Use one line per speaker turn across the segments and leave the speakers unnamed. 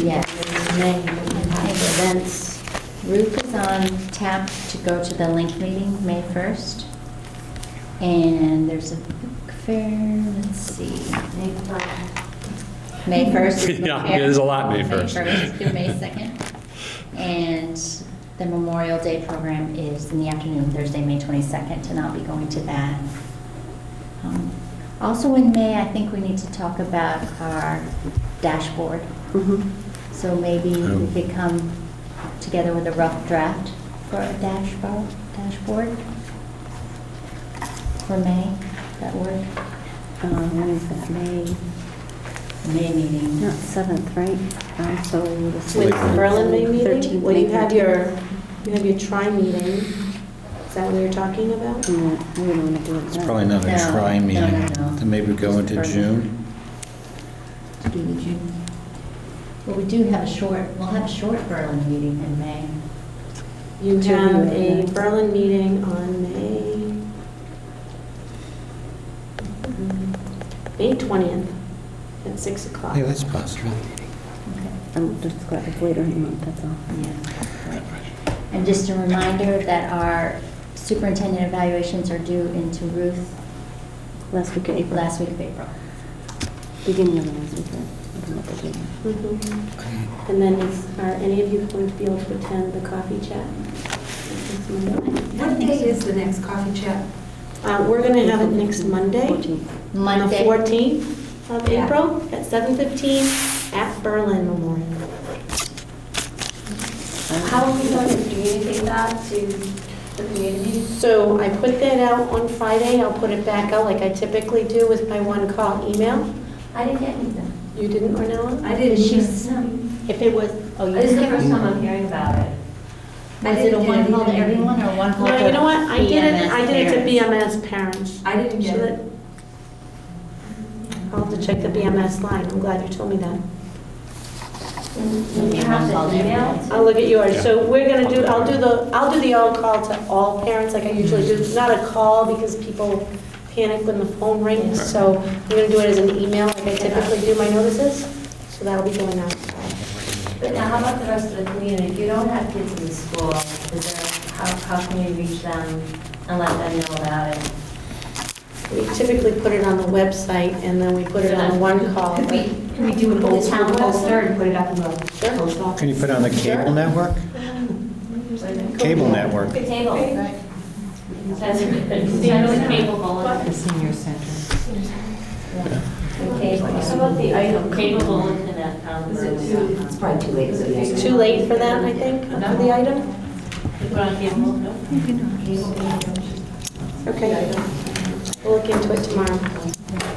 Yes, and then events, Ruth is on tap to go to the link meeting, May 1st. And there's a book fair, let's see. May 1st is the
Yeah,
fair.
there's a lot May 1st.
May 1st through May 2nd. And the Memorial Day program is in the afternoon, Thursday, May 22nd, and I'll be going to that. Um, Also in May, I think we need to talk about our dashboard. So maybe we
Um,
Oh.
could come together with a rough draft for a dashboard, dashboard for May, that work?
Um, When is that, May,
May meeting.
not 7th, right? Um, So the
With the
6th,
Berlin May
13th,
meeting? Well,
May
you have
13th.
your, you have your tri meeting. Is that what you're talking about?
Yeah, I wouldn't want to do it
It's
then.
probably not a
No,
try
no,
meeting.
no, no.
Then maybe go into June.
To do the June. Well, we do have a short, we'll have a short Berlin meeting in May.
You
Two
have a
meetings.
Berlin meeting on May, Mm, May 20th at 6 o'clock.
Yeah, that's possible.
Okay.
I'm just glad it's later in the month, that's all.
Yeah. right. And just a reminder that our superintendent evaluations are due into Ruth
Last week of April,
last week of April.
beginning of the last week. I don't know what the date is.
Mhm. And then is, are any of you going to be able to attend the coffee chat? Next Monday?
What date is the next coffee chat?
Uh, We're going to have it next Monday.
14th.
On the
Monday.
14th of
Yeah.
April at 7:15 at Berlin Memorial.
How are we going to communicate that to the community?
So I put that out on Friday, I'll put it back out like I typically do with my one call email.
I didn't get anything.
You didn't, Ornella?
I didn't.
She's-
No.
If it was, oh, you
This is the
didn't?
first time I'm hearing about it. I
Was it a
didn't get
one call to
anything.
everyone or one call to?
No, you know what, I did it,
BMS
I did it to
parents?
BMS parents.
I didn't get
So
it.
that- I'll have to check the BMS line, I'm glad you told me that.
You have
Call
the
to
email?
everyone.
I'll look at yours, so we're gonna do, I'll do
Yeah.
the, I'll do the all call to all parents like I usually do, not a call because people panic when the phone rings,
Yeah.
so I'm gonna do it as an email like I typically do my notices, so that'll be going out.
But now, how about the rest of the community? If you don't have kids in the school, is there, how, how can you reach them and let them know about it?
We typically put it on the website and then we put it on one call.
Could we, could we do it on the town poster and put it up in the journals?
Can you put it on the cable network? Cable network.
The table. That's good. I know it's cable bulletin.
Senior Center.
How about the item? Cable bulletin at town.
It's probably too late.
It's too late for that, I think, for the item? Okay. We'll look into it tomorrow.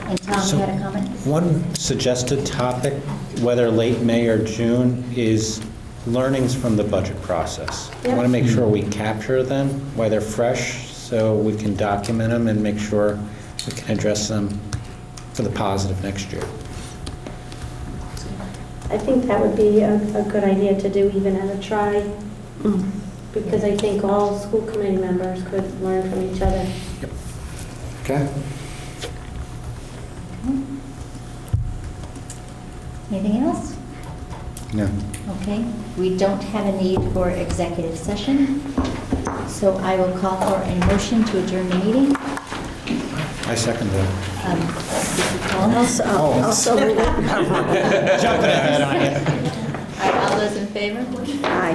And Tom,
So-
you had a comment?
One suggested topic, whether late May or June, is learnings from the budget process. I want to
Yep.
make sure we capture them while they're fresh, so we can document them and make sure we can address them for the positive next year.
I think that would be a, a good idea to do even at a try,
Mm.
because I think all school committee members could learn from each other.
Okay.
Anything else?
Yeah.
Okay, we don't have a need for executive session, so I will call for a motion to adjourn the meeting.
I second that.
Um, this is Paula.
Also,
Oh.
also,
Jumping ahead on you.
Are all those in favor?
I